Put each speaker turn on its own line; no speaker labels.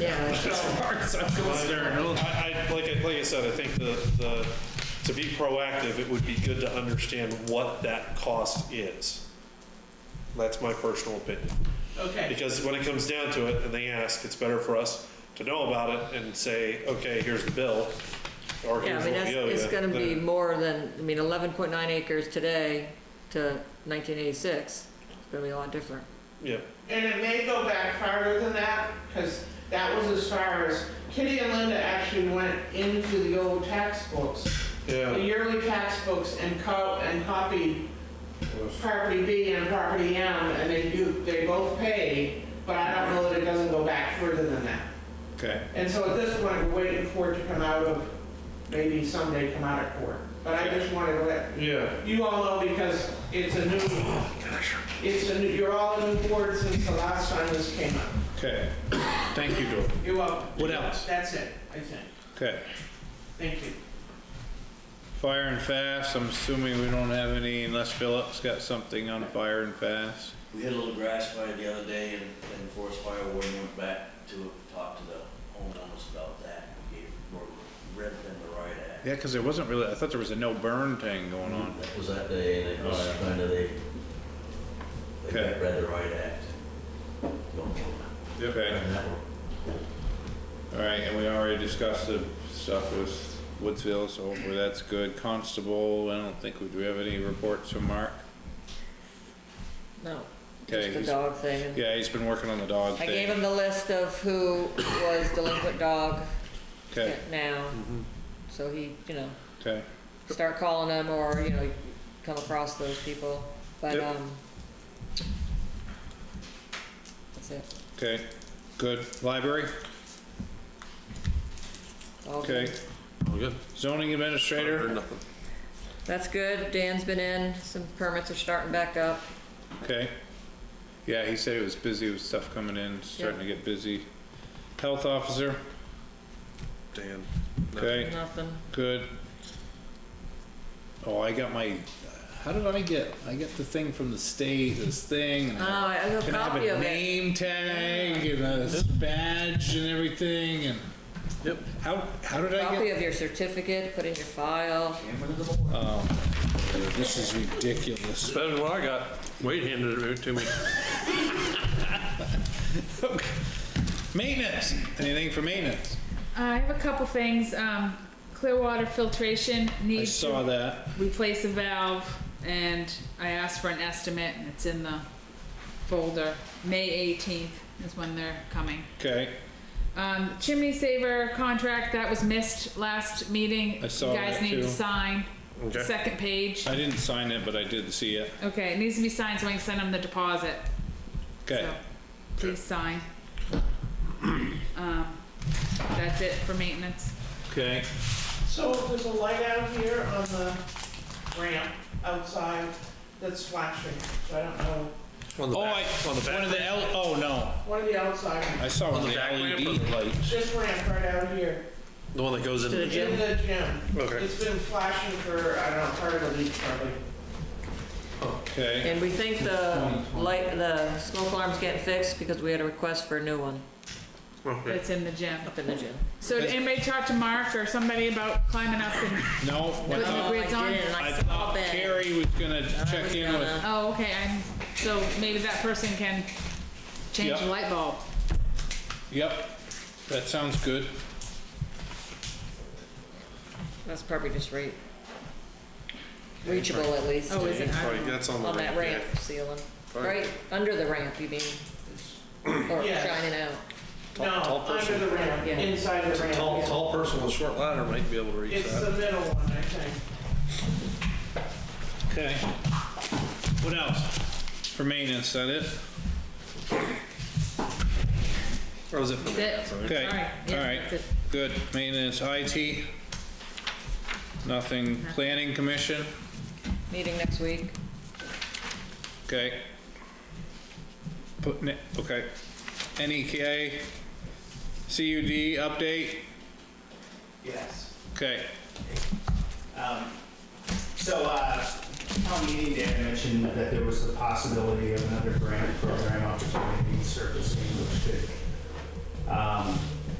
Yeah,
As far as I'm concerned, I, I, like, I- like I said, I think the, the, to be proactive, it would be good to understand what that cost is. That's my personal opinion.
okay.
Because when it comes down to it, and they ask, it's better for us to know about it and say, okay, here's the bill, or
Yeah,
here's
I
what
mean, that's,
we owe you.
it's gonna be
than-
more than, I mean, eleven point nine acres today to nineteen eighty-six, it's gonna be a lot different.
Yeah,
And it may go back farther than that, because that was as far as, Kitty and Linda actually went into the old tax books, the
yeah,
yearly tax books, and co, and copied property B and property M, and they do, they both pay, but I don't know that it doesn't go back further than that.
Okay.
And so at this point, we're waiting for it to come out of, maybe someday come out of court. But I just wanted to let
yeah,
you all know because it's a new, it's a new, you're all a new board since the last time this came up.
Okay. Thank you, Dor.
You're welcome.
What else?
That's it, I think.
Okay.
Thank you.
Fire and fast, I'm assuming we don't have any unless Philip's got something on fire and fast.
We had a little grass fire the other day and, and forest fire warden went back to talk to the homeowners about that. We gave, we read them the right act.
Yeah, because there wasn't really, I thought there was a no burn thing going on.
That was that day and it was kind of they, they
Okay.
read the right act. Don't kill
Okay.
them.
All right, and we already discussed the stuff with Woodsville, so hopefully that's good. Constable, I don't think, we do we have any reports from Mark?
No,
Okay,
just the
he's-
dog thing. and-
Yeah, he's been working on the dog
I
thing.
gave him the list of who was delinquent dog
Okay,
now, so he, you know,
okay,
start calling them or, you know, come across those people, but,
Yep.
um, that's it.
okay, good. Library,
All good.
okay. Zoning administrator,
That's good, Dan's been in, some permits are starting back up.
okay. Yeah, he said he was busy with stuff coming in, starting to get busy. Health officer,
Dan.
okay,
Nothing.
good. Oh, I got my, how did I get, I get the thing from the state, this thing. and
Oh, I have a
Can I have
copy
a
of it.
name tag and a badge and everything and? Yep. How, how did I
Copy
get?
of your certificate, put in your file.
This is ridiculous.
Better than what I got. Wade handed it to me.
Maintenance, anything for maintenance?
Uh, I have a couple things. Um, clear water filtration
I
needs
saw
to
that,
replace a valve, and I asked for an estimate, and it's in the folder. May 18th is when they're coming.
okay,
Um, chimney saver contract that was missed last meeting.
I saw
you guys
that
need
too.
to sign.
Okay.
Second page.
I didn't sign it, but I did see it,
Okay, it needs to be signed so I can send them the deposit.
okay,
So, please sign. Um, that's it for maintenance.
okay,
So if there's a light out here on the ramp outside that's flashing, so I don't know.
On the
Oh,
back.
I-
on the
one
back.
of the L, oh no,
One of the outside,
I saw one of the
the
E
back lamp or
LED lights.
this ramp right out here,
The one that goes into the
in
gym.
the gym.
Okay.
It's been flashing for, I don't know, part of the week probably.
Okay,
And we think the light, the smoke alarm's getting fixed because we had a request for a new one
Okay.
That's in the gym.
up in the gym.
So did anybody talk to Mark or somebody about climbing up and,
no, I
Putting the
thought,
grid- grids
Oh, I
on?
did, and
I
I
thought
saw Ben.
Carrie was gonna check in with,
oh, okay, I'm, so maybe that person can change the
Yeah.
light bulb.
yep, that sounds good.
That's probably just re- reachable at least,
Oh, is it? I
Right,
don't know.
that's on the
on that
ramp, yeah.
ramp ceiling. Right under the ramp, you mean? Or
Yeah.
shining out.
No,
tall
under
person.
the ramp,
Yeah.
inside the ramp.
Tall,
yeah.
tall person with a short ladder might be able to reach
It's the
that.
middle one, I think.
Okay. What else? For maintenance, that it?
Or was it from the
That's it.
Okay,
All right, yeah,
all right,
that's it.
good. Maintenance, IT? Nothing. Planning commission?
Meeting next week.
Okay. Putting it, okay. NEK? CUD update?
Yes.
Okay,
Um, So, uh, town meeting day, I mentioned that there was the possibility of another grant program opportunity surfacing, which could Um,